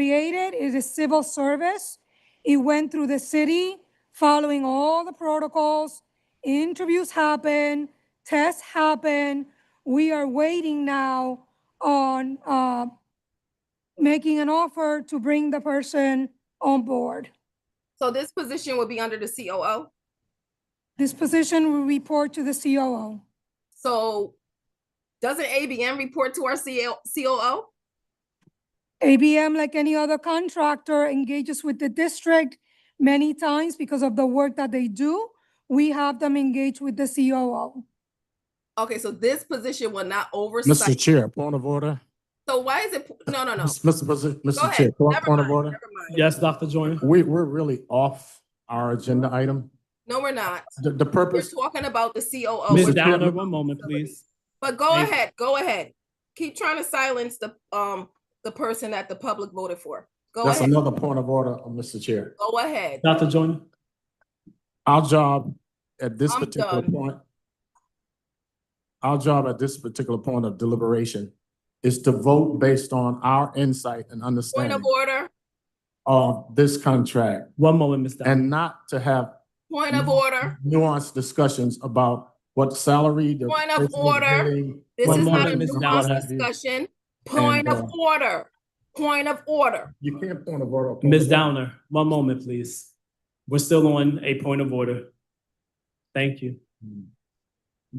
created. It is civil service. It went through the city, following all the protocols. Interviews happen, tests happen. We are waiting now on uh, making an offer to bring the person on board. So this position would be under the COO. This position will report to the COO. So doesn't ABM report to our CL COO? ABM, like any other contractor, engages with the district many times because of the work that they do. We have them engage with the COO. Okay, so this position will not Mr. oversight. Chair, point of order. So why is it, no, no, no. Mr. Mr. Go Mr. Chair, ahead. point Never point of mind, order. never mind. Yes, Dr. Joyner. We, we're really off our agenda item. No, we're not. The, the We're purpose, talking about the COO. Ms. We're- Downer, one moment, please. But go Thank you. ahead, go ahead. Keep trying to silence the, um, the person that the public voted for. Go that's ahead, another point of order, uh, Mr. Chair. go ahead. Dr. Joyner, Our job at this I'm particular done. point, our job at this particular point of deliberation is to vote based on our insight and Point understanding of order, of this contract one moment, Ms. Downer. and not to have point Mm-hmm. of order. nuanced discussions about what salary. the Point of person is order. getting, This what is not money a moment, Ms. is- what Dowd. have nuanced you. discussion. Point And, of uh, order, point of order. You can't point of order. upon Ms. the- Downer, one moment, please. We're still on a point of order. Thank you.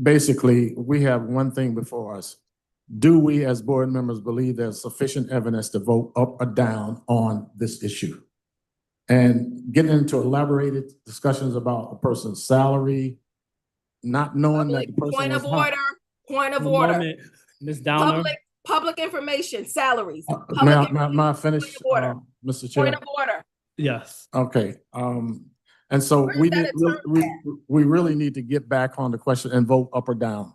Basically, we have one thing before us. Do we as board members believe there's sufficient evidence to vote up or down on this issue? And getting into elaborated discussions about a person's salary, not knowing that the Public, person Point was of hired. order, point of One order. moment, Ms. Downer, Public, public information, salaries, Uh, May I, may I- may I Point finish, of order. uh, Mr. Chair? point of order. yes. Okay, um, and so Where is we that need, we- attorney we, we really need to get back on the question and vote up or down.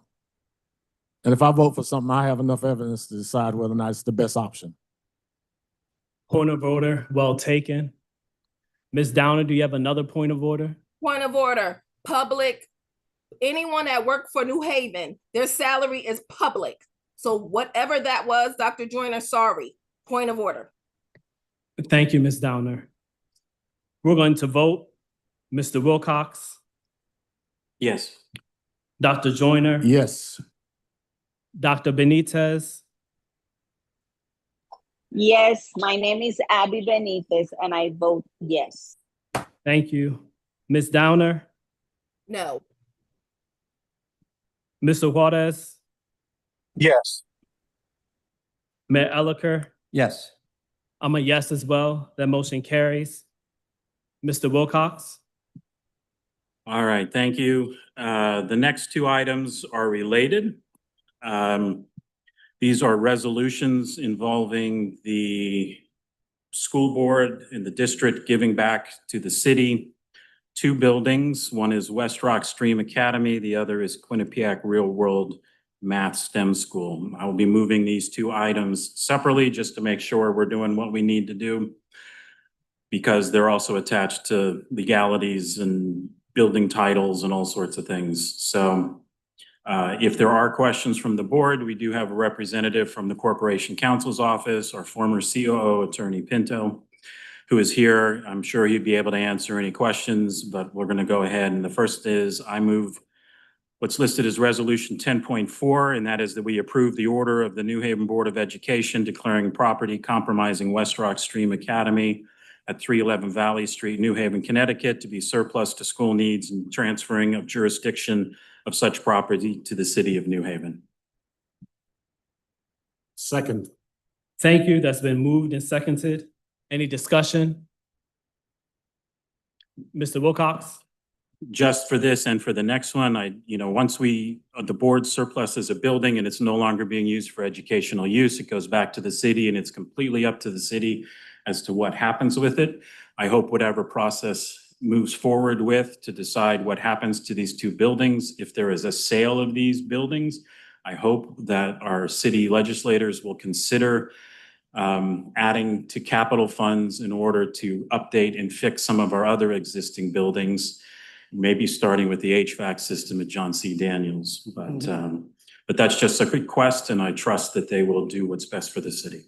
And if I vote for something, I have enough evidence to decide whether or not it's the best option. Point of order, well taken. Ms. Downer, do you have another point of order? Point of order, public, anyone that worked for New Haven, their salary is public. So whatever that was, Dr. Joyner, sorry, point of order. Thank you, Ms. Downer. We're going to vote. Mr. Wilcox, Yes. Dr. Joyner, Yes, Dr. Benitez, Yes, my name is Abby Benitez and I vote yes. thank you. Ms. Downer, No, Mr. Juarez, Yes. Mayor Elicker, Yes. I'm a yes as well. That motion carries. Mr. Wilcox, All right, thank you. Uh, The next two items are related. Um, These are resolutions involving the school board and the district giving back to the city two buildings. One is West Rock Stream Academy, the other is Quinnipiac Real World Math STEM School. I will be moving these two items separately just to make sure we're doing what we need to do because they're also attached to legalities and building titles and all sorts of things. So uh, if there are questions from the board, we do have a representative from the Corporation Counsel's Office, our former COO, Attorney Pinto, who is here. I'm sure he'd be able to answer any questions, but we're going to go ahead. And the first is I move what's listed as Resolution 10.4, and that is that we approve the order of the New Haven Board of Education declaring property compromising West Rock Stream Academy at three eleven Valley Street, New Haven, Connecticut, to be surplus to school needs and transferring of jurisdiction of such property to the city of New Haven. second, thank you. That's been moved and seconded. Any discussion? Mr. Wilcox, Just for this and for the next one, I, you know, once we, uh, the board surpluses a building and it's no longer being used for educational use, it goes back to the city and it's completely up to the city as to what happens with it. I hope whatever process moves forward with to decide what happens to these two buildings, if there is a sale of these buildings, I hope that our city legislators will consider um, adding to capital funds in order to update and fix some of our other existing buildings, maybe starting with the HVAC system at John C. Daniels. But, um, but that's just a request, and I trust that they will do what's best for the city.